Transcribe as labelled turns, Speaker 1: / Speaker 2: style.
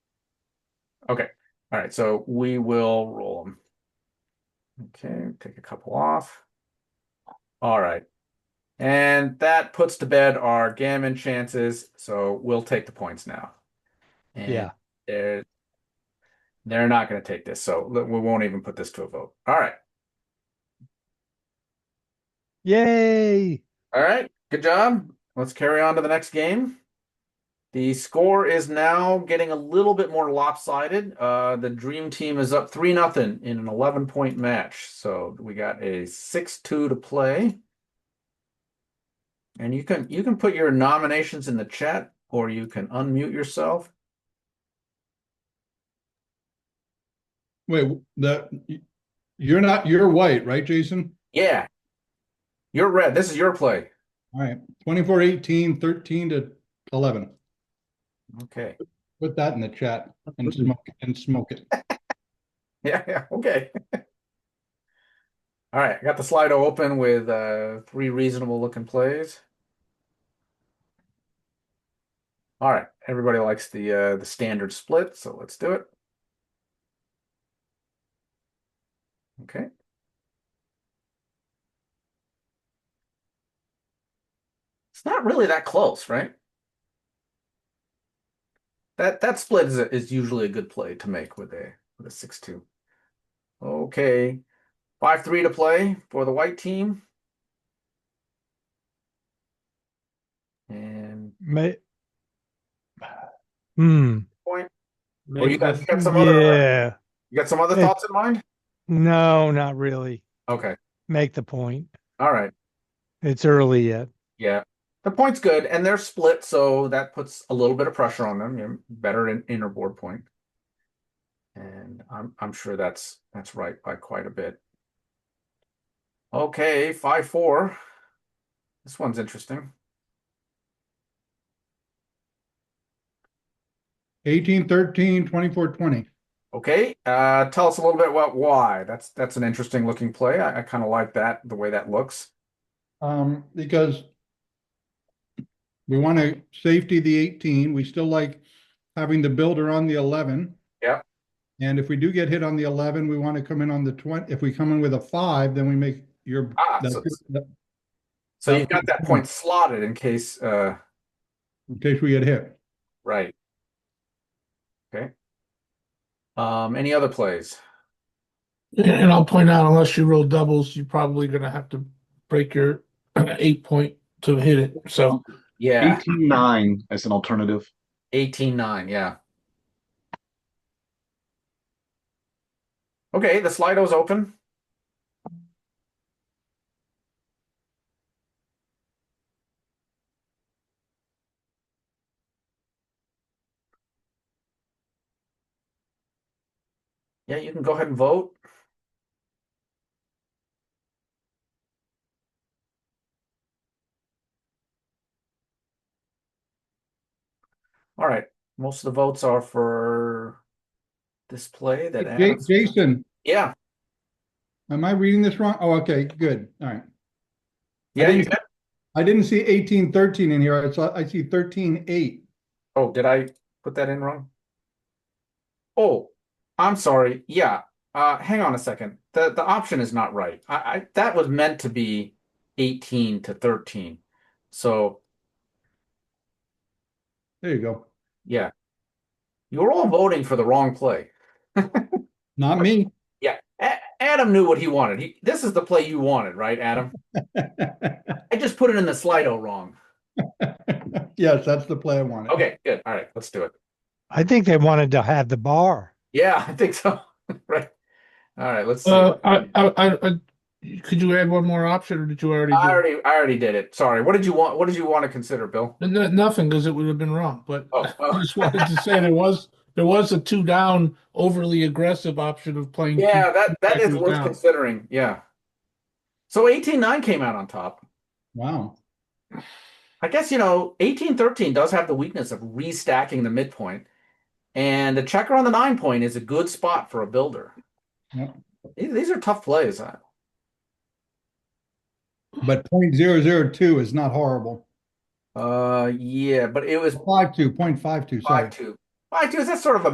Speaker 1: Okay, all right, so we will roll them. Okay, take a couple off. All right. And that puts to bed our gammon chances, so we'll take the points now. And
Speaker 2: Yeah.
Speaker 1: They're, they're not gonna take this, so we won't even put this to a vote. All right,
Speaker 2: Yay!
Speaker 1: all right, good job. Let's carry on to the next game. The score is now getting a little bit more lopsided. Uh, the Dream Team is up 3 nothing in an 11 point match. So we got a 6 2 to play. And you can you can put your nominations in the chat or you can unmute yourself.
Speaker 3: Wait, that, you're not, you're white, right, Jason?
Speaker 1: Yeah. You're red. This is your play.
Speaker 3: All right, twenty-four, eighteen, thirteen to eleven.
Speaker 1: Okay.
Speaker 3: Put that in the chat and smoke, and smoke it.
Speaker 1: Yeah, yeah, okay. All right, I got the Slido open with uh, three reasonable looking plays. All right, everybody likes the uh, the standard split, so let's do it. Okay. It's not really that close, right? That that split is a, is usually a good play to make with a with a six two. Okay, five three to play for the white team. And
Speaker 2: May. Hmm.
Speaker 1: point. Or you
Speaker 4: Make
Speaker 1: got,
Speaker 4: the,
Speaker 1: you got some other
Speaker 2: Yeah.
Speaker 1: you got some other
Speaker 2: Yeah.
Speaker 1: thoughts in mind?
Speaker 2: No, not really.
Speaker 1: Okay,
Speaker 2: Make the point.
Speaker 1: all right.
Speaker 2: It's early yet.
Speaker 1: Yeah, the point's good, and they're split, so that puts a little bit of pressure on them. You know, better in inner board point, and I'm I'm sure that's that's right by quite a bit. Okay, five four. This one's interesting.
Speaker 3: Eighteen, thirteen, twenty-four, twenty.
Speaker 1: Okay, uh, tell us a little bit about why. That's that's an interesting looking play. I, I kind of like that the way that looks.
Speaker 3: Um, because we want to safety the eighteen, we still like having the builder on the eleven.
Speaker 1: Yep.
Speaker 3: And if we do get hit on the eleven, we want to come in on the twenty, if we come in with a five, then we make your.
Speaker 1: Ah,
Speaker 3: that's-
Speaker 1: so, so you've got that point slotted in case. Uh,
Speaker 3: In case we get hit.
Speaker 1: right. Okay. Um, any other plays?
Speaker 4: and I'll point out, unless you roll doubles, you're probably gonna have to break your eight point to hit it. So
Speaker 1: Yeah.
Speaker 5: Eighteen nine as an alternative.
Speaker 1: Eighteen nine, yeah. Okay, the Slido's open. Yeah, you can go ahead and vote. All right, most of the votes are for this play that
Speaker 3: Ja-
Speaker 1: Adam's-
Speaker 3: Jason,
Speaker 1: Yeah,
Speaker 3: am I reading this wrong? Oh, okay, good, all right.
Speaker 1: yeah, you
Speaker 3: didn't-
Speaker 1: did.
Speaker 3: I didn't see eighteen thirteen in here. I saw, I see thirteen eight.
Speaker 1: Oh, did I put that in wrong? Oh, I'm sorry. Yeah. Uh, hang on a second. The the option is not right. I, I that was meant to be 18 to 13. So
Speaker 3: There you go.
Speaker 1: yeah. You were all voting for the wrong play.
Speaker 3: Not me.
Speaker 1: A- Adam knew what he wanted. He, this is the play you wanted, right, Adam? I just put it in the Slido wrong.
Speaker 3: Yes, that's the play I wanted.
Speaker 1: Okay, good. All right, let's do it.
Speaker 2: I think they wanted to have the bar.
Speaker 1: Yeah, I think so. right. All right, let's see.
Speaker 4: uh, I, I, I, I- could you add one more option, or did you already? do
Speaker 1: I
Speaker 4: it?
Speaker 1: already I already did it. Sorry. What did you want? What did you want to consider, Bill?
Speaker 4: No, nothing, because it would have been wrong, but
Speaker 1: Oh,
Speaker 4: I
Speaker 1: oh.
Speaker 4: just wanted to say there was, there was a two down overly aggressive option of playing. two-
Speaker 1: Yeah, that that is
Speaker 4: Backwards
Speaker 1: worth
Speaker 4: down.
Speaker 1: considering. Yeah. So eighteen nine came out on top.
Speaker 3: Wow.
Speaker 1: I guess you know eighteen thirteen does have the weakness of restacking the midpoint, and the checker on the nine point is a good spot for a builder.
Speaker 3: Yep.
Speaker 1: These these are tough plays. I-
Speaker 3: But point zero zero two is not horrible.
Speaker 1: Uh, yeah, but it was
Speaker 3: Five two, point five two, sorry.
Speaker 1: five two. Five two is that's sort of a